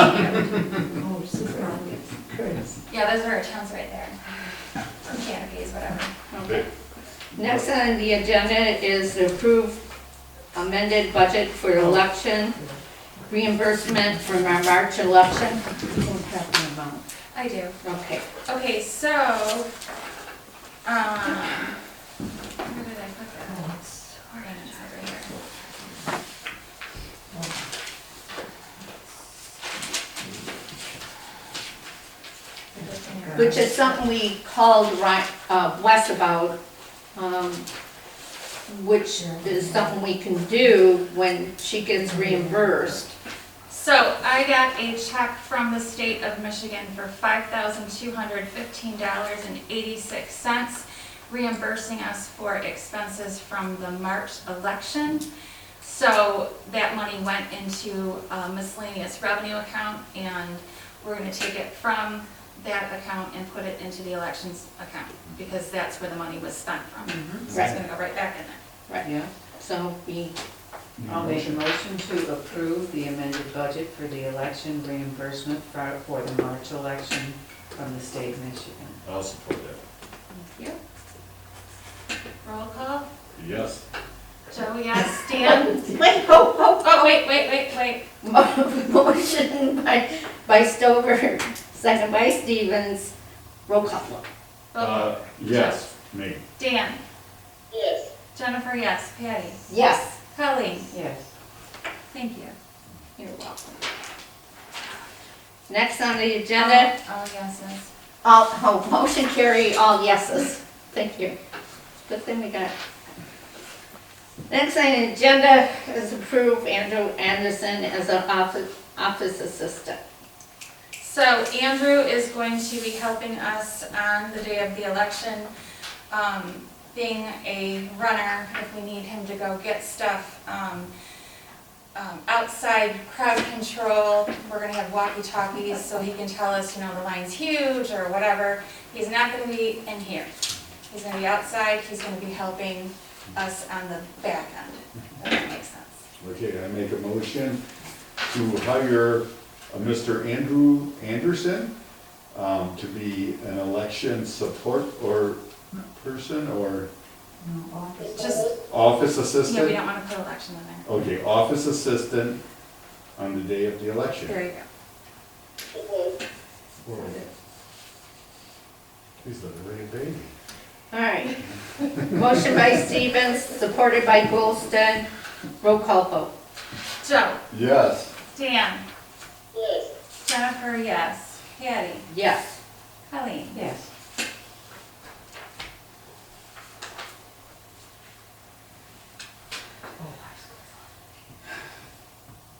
Oh, super, Curtis. Yeah, those are our towns right there. Or Canopies, whatever. Okay. Next on the agenda is the approved amended budget for election reimbursement from our March election. You don't have the amount. I do. Okay, Okay, so, um, where did I put that? Sorry, it's over here. which is something we called Ri- uh, Wes about, um, which is something we can do when she gets reimbursed. So I got a check from the state of Michigan for five thousand two hundred fifteen dollars and eighty-six cents reimbursing us for expenses from the March election. So that money went into a miscellaneous revenue account and we're gonna take it from that account and put it into the elections account because that's where the money was spent from. So it's Right, gonna go right back in there. right. Mm-hmm, Yeah, So we, I'll make a motion to approve the amended budget for the election reimbursement for, for the March election from the state of Michigan. I'll support that. Roll call. Yes. Joe, yes. Dan? wait, ho, ho, Oh, wait, wait, wait, wait. Motion by, by Stover, second by Stevens, roll call. Vote. Uh, yes, me. Dan? yes, Jennifer, yes. Patty? Yes. Colleen? Yes. Thank you. You're welcome. Next on the agenda, All yeses. Um, all, oh, motion carry, all yeses. Thank you. Good thing we got. Next on the agenda is approve Andrew Anderson as an office, office assistant. So Andrew is going to be helping us on the day of the election, um, being a runner, if we need him to go get stuff. um, um, Outside crowd control, we're gonna have walkie-talkies, so he can tell us, you know, the line's huge or whatever. He's not gonna be in here. He's gonna be outside, he's gonna be helping us on the back end, if that makes sense. Okay, I make a motion to hire a Mr. Andrew Anderson um, to be an election support or person or Just, office yeah, we assistant? don't wanna put election in there. Okay, office assistant on the day of the election. There you go. okay, Whoa. He's a little baby. All right. Motion by Stevens, supported by Goldston, roll call vote. Joe, Yes. Dan, yes, Jennifer, yes. Patty, Yes. Colleen. Yes.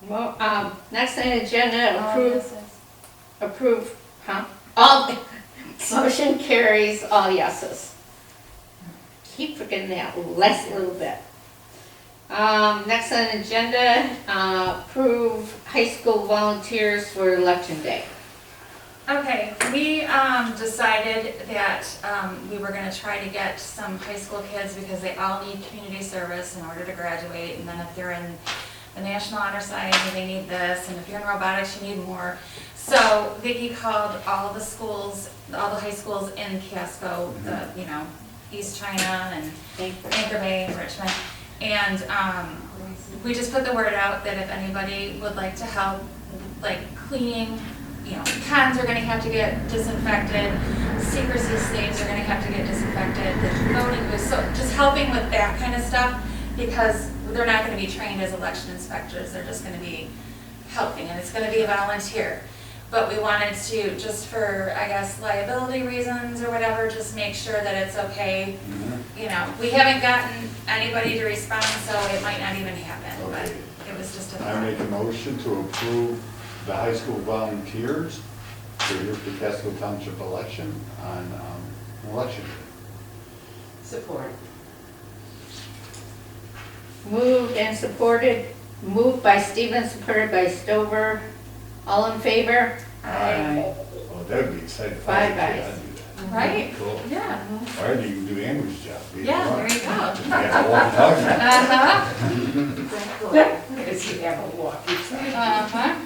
Well, um, next on the agenda, All approve, yeses. approve, huh? All, motion carries, all yeses. Keep forgetting that last little bit. Um, next on the agenda, uh, approve high school volunteers for election day. Okay, we um, decided that um, we were gonna try to get some high school kids because they all need community service in order to graduate. And then if they're in the National Honor Society, they need this, and if you're in robotics, you need more. So Vicki called all the schools, all the high schools in Casco, the, you know, East China and Thank you. Anchor Bay and Richmond. And um, we just put the word out that if anybody would like to help, like cleaning, you know, cans are gonna have to get disinfected, secrecy states are gonna have to get disinfected, the voting booths, so just helping with that kind of stuff, because they're not gonna be trained as election inspectors, they're just gonna be helping, and it's gonna be a volunteer. But we wanted to, just for, I guess, liability reasons or whatever, just make sure that it's okay Mm-hmm. you know, we haven't gotten anybody to respond, so it might not even happen, but Okay. it was just a I thought. make a motion to approve the high school volunteers for your Casco Township election on um, election day. Support. Moved and supported, moved by Stevens, supported by Stover. All in favor? Aye. Oh, that'd be exciting. Five Okay, guys. I'd do that. Right? Cool. Yeah, Or you can do Andrew's job. either yeah, one. there you go. You got a long time. Uh-huh, Does he have a walkie-talkie? uh-huh.